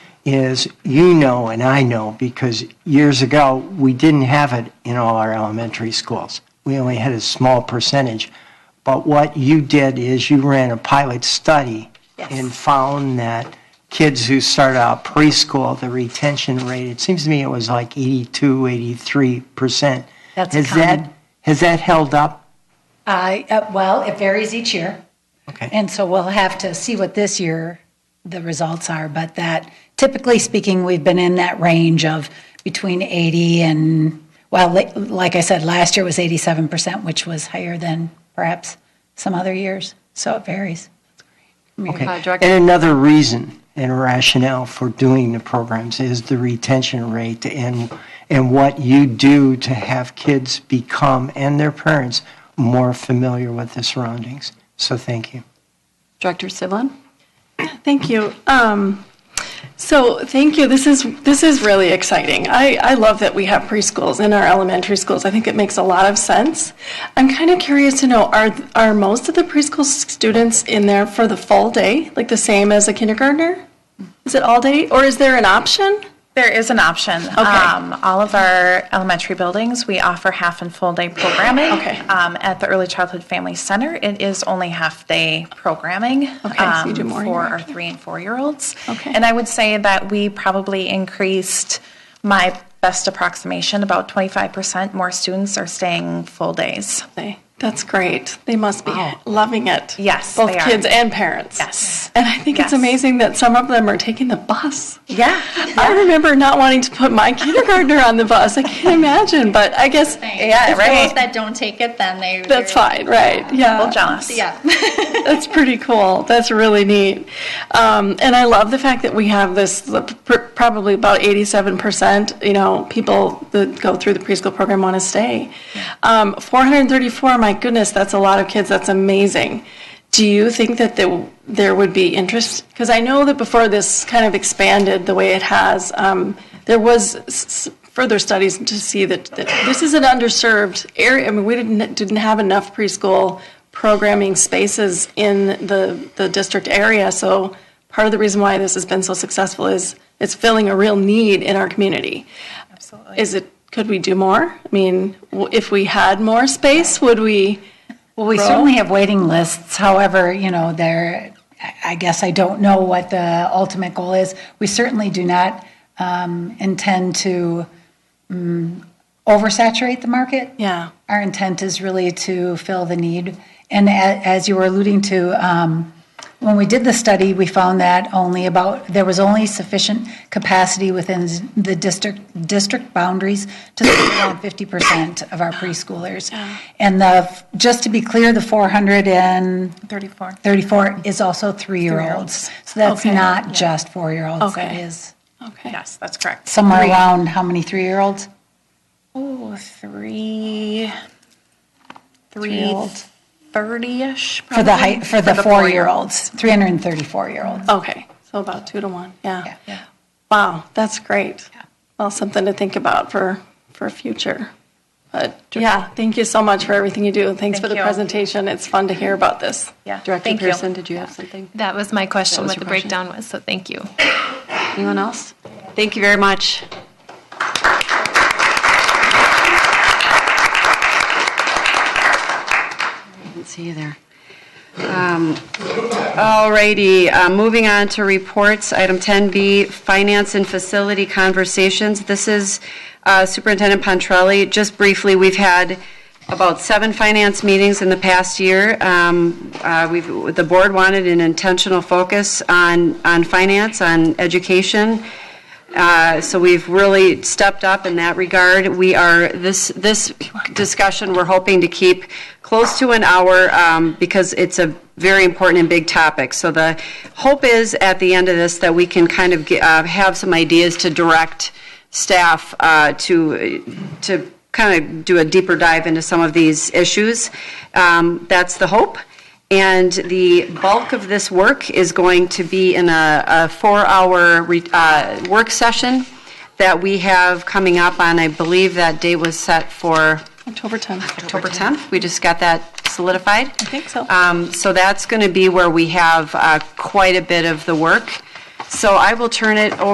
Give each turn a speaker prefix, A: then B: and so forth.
A: is you know and I know because years ago we didn't have it in all our elementary schools. We only had a small percentage. But what you did is you ran a pilot study
B: Yes.
A: and found that kids who start out preschool, the retention rate, it seems to me it was like 82, 83%.
B: That's
A: has
B: common.
A: that has that held up?
B: I, uh, well, it varies each year.
A: Okay.
B: And so we'll have to see what this year the results are, but that, typically speaking, we've been in that range of between 80 and, well, li- like I said, last year was 87%, which was higher than perhaps some other years. So it varies.
A: Okay.
C: Uh, Director-
A: And another reason and rationale for doing the programs is the retention rate and, and what you do to have kids become, and their parents, more familiar with the surroundings. So thank you.
C: Director Siblin?
D: Thank you. Um, so thank you. This is this is really exciting. I, I love that we have preschools in our elementary schools. I think it makes a lot of sense. I'm kind of curious to know are are most of the preschool students in there for the full day, like the same as a kindergartner? Is it all day, or is there an option?
E: There is an option. Um, all of our elementary buildings, we offer half and full day programming.
D: Okay.
E: Um, at the Early Childhood Family Center, it is only half day programming.
D: Okay, so you do
E: um,
D: more
E: For our
D: interactive.
E: three and four year olds.
D: Okay.
E: And I would say that we probably increased my best approximation about 25% more students are staying full days.
D: They- That's great. They must be loving it.
E: Yes,
D: both
E: they are.
D: kids and parents.
E: Yes.
D: and I think
E: Yes.
D: it's amazing that some of them are taking the bus.
E: Yeah.
D: I remember not wanting to put my kindergartner on the bus. I can't imagine, but I guess
E: Yeah,
F: If those
E: right.
F: that don't take it, then they.
D: that's
F: they're-
D: fine, right?
E: Well,
D: Yeah,
E: jealous.
F: Yeah.
D: that's pretty cool. That's really neat. Um, and I love the fact that we have this the pr- probably about 87%, you know, people that go through the preschool program want to stay. Um, 434, my goodness, that's a lot of kids. That's amazing. Do you think that there, there would be interest? Because I know that before this kind of expanded the way it has, um, there was s- s- further studies to see that, that this is an underserved area. I mean, we didn't didn't have enough preschool programming spaces in the the district area. So part of the reason why this has been so successful is it's filling a real need in our community. Absolutely. Is it? Could we do more? I mean, w- if we had more space, would we?
B: Well, we certainly have waiting lists. However, you know, there, I- I guess I don't know what the ultimate goal is. We certainly do not um, intend to mm, oversaturate the market.
D: Yeah.
B: Our intent is really to fill the need. And a- as you were alluding to, um, when we did the study, we found that only about, there was only sufficient capacity within the district, district boundaries to serve around 50% of our preschoolers. And the, just to be clear, the 434
E: 34.
B: is also three-year-olds. So that's
D: Okay.
B: not just four-year-olds. That
D: Okay.
B: is
D: Okay.
E: Yes, that's correct.
B: somewhere
E: Three.
B: around how many three-year-olds?
E: Oh, three, three
D: Three-year-old.
E: thirty-ish.
B: For the, high-
E: probably,
B: for the
E: four-year-old.
B: four-year-olds, 334-year-olds.
D: Okay. So about two to one.
B: Yeah.
D: Wow, that's great. Well, something to think about for, for future. But yeah, thank you so much for everything you do. and Thanks for
E: Thank
D: the
E: you.
D: presentation. It's fun to hear about this.
E: Yeah,
C: Director
E: thank you.
C: Pearson, did you have something?
G: That was my question,
C: was
G: what
C: your
G: the
C: question.
G: breakdown was, so thank you.
C: Anyone else? Thank you very much. Didn't see you there. Um, All righty, uh, moving on to reports, item 10B, finance and facility conversations. This is uh, Superintendent Pontrelli. Just briefly, we've had about seven finance meetings in the past year. Um, uh, We've, the board wanted an intentional focus on, on finance, on education. Uh, So we've really stepped up in that regard. We are, this, this discussion, we're hoping to keep close to an hour um, because it's a very important and big topic. So the hope is at the end of this that we can kind of get- uh, have some ideas to direct staff uh, to, to kind of do a deeper dive into some of these issues. Um, That's the hope. And the bulk of this work is going to be in a, a four-hour re- uh, work session that we have coming up on, I believe that date was set for
D: October 10th.
C: October 10th. We just got that solidified. I
D: think so.
C: So that's going to be where we have uh, quite a bit of the work. So I will turn it over.